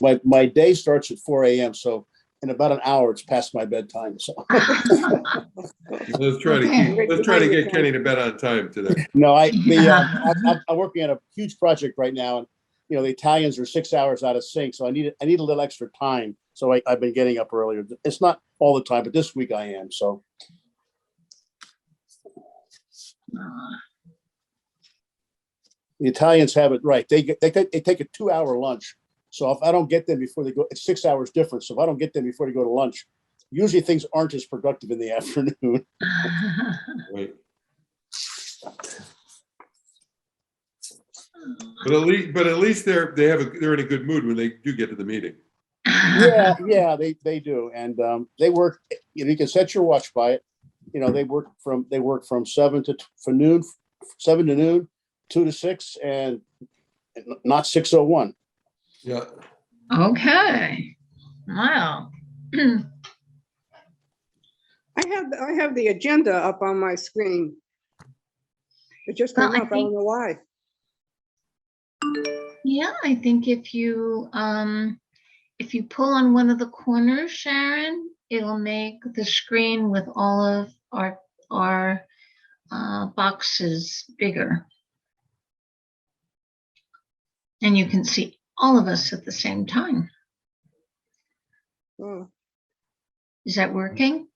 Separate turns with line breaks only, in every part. my, my day starts at four AM, so in about an hour, it's past my bedtime, so.
Let's try to keep, let's try to get Kenny to bed on time today.
No, I, the, uh, I'm, I'm- I'm working on a huge project right now and, you know, the Italians are six hours out of sync, so I need, I need a little extra time. So I, I've been getting up earlier. It's not all the time, but this week I am, so. The Italians have it right. They get, they, take- they take a two hour lunch. So if I don't get them before they go, it's six hours difference. So if I don't get them before they go to lunch, usually things aren't as productive in the afternoon.
Right. But at least, but at least they're, they have, a they're in a good mood when they do get to the meeting.
yeah, yeah, they they do, and um, they work. You know, you can set your watch by it. You know, they work from they work from seven to t- for noon, seven to noon, two to six, and and not six oh one.
Yeah.
Okay, wow.
I have, I have the agenda up on my screen. It just
Well,
came
I
up, I don't
think-
know why.
Yeah, I think if you, um, if you pull on one of the corners, Sharon, it'll make the screen with all of our, our, uh, boxes bigger. And you can see all of us at the same time.
Oh,
Is that working?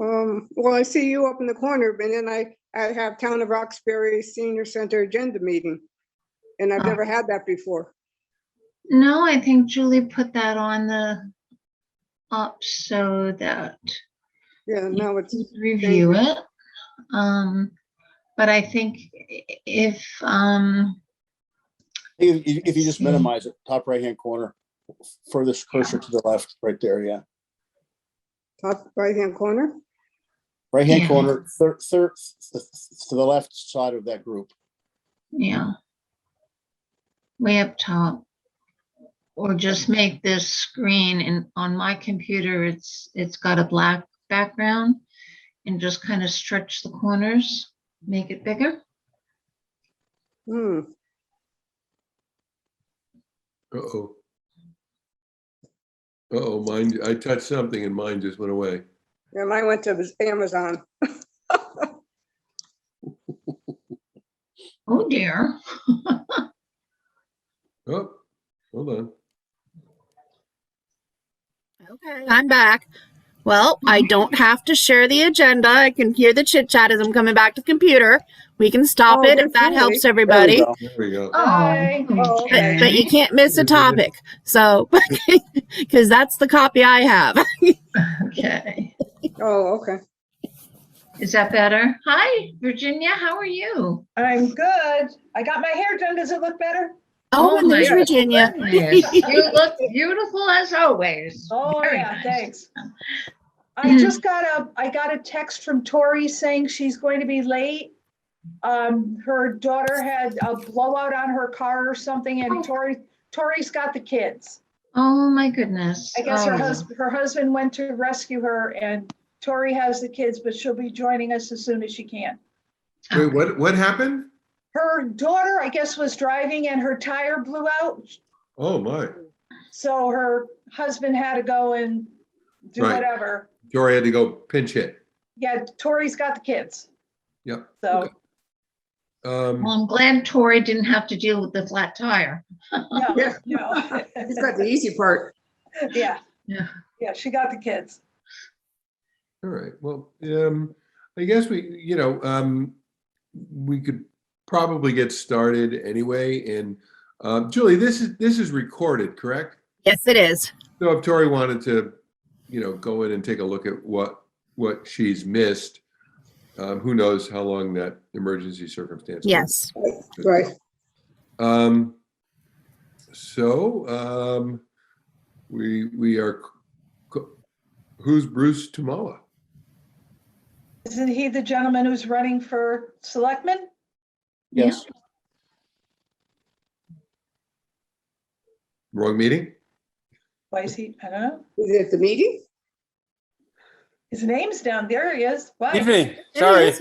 Um, well, I see you up in the corner, but then I, I have Town of Roxbury Senior Center Agenda Meeting. And I've
Oh.
never had that before.
No, I think Julie put that on the up so that
Yeah, now it's,
you can review it. Um, but I think i- if, um,
If, if if you just
see.
minimize it, top right hand corner, furthest cursor to the left, right there. Yeah,
top right-hand corner.
right hand
Yeah.
corner, third third to the left side of that group.
yeah. Way up top. Or just make this screen and on my computer, it's, it's got a black background. And just kind of stretch the corners, make it bigger.
Hmm,
Uh-oh. Uh-oh, mine, I touched something and mine just went away.
yeah, mine went to Amazon.
Oh dear.
Oh, hold on.
Okay, I'm back. Well, I don't have to share the agenda. I can hear the chit chat as I'm coming back to the computer. We can stop
Oh,
it
good
if that
point.
helps
There we
everybody.
go.
There we go.
Hi. Oh,
But, but you can't miss a
Good idea.
topic. So, because that's the copy I have.
Okay,
Oh, okay.
is that better? Hi, Virginia, how are you?
I'm good. I got my hair done. Does it look better?
Oh, and there's
my
Virginia.
goodness, You look beautiful as always.
Oh,
Very
yeah,
nice.
thanks.
Mm.
I just got a, I got a text from Tori saying she's going to be late. Um, her daughter had a blowout on her car or something
Oh.
and Tori, Tori's got the kids.
Oh, my goodness.
I guess her
Oh,
husband, her husband went to rescue her and Tori has the kids, but she'll be joining us as soon as she can.
Wait, what, what happened?
Her daughter, I guess, was driving and her tire blew out.
Oh, my.
So her husband had to go and do
Right.
whatever.
Jory had to go pinch hit.
Yeah, Tori's got the kids.
Yep.
So,
Well,
Um,
I'm glad Tori didn't have to deal with the flat tire.
no,
Yeah.
no.
He's got the easy part.
Yeah,
Yeah.
yeah, she got the kids.
all right, well, um, I guess we, you know, um, we could probably get started anyway. And, um, Julie, this is, this is recorded, correct?
Yes, it is.
So if Tori wanted to, you know, go in and take a look at what, what she's missed, um, who knows how long that emergency circumstance. was.
Yes.
Right.
Um, so, um, we, we are, c- who's Bruce Tamala?
Isn't he the gentleman who's running for selectman?
Yeah.
Yes.
Wrong meeting?
Why is he, I don't know.
Is it at the meeting?
His name's down, there he is. Wow.
Evening, sorry,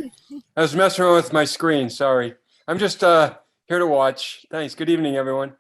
I was messing around with my screen, sorry. I'm just uh here to watch. Thanks, good evening, everyone.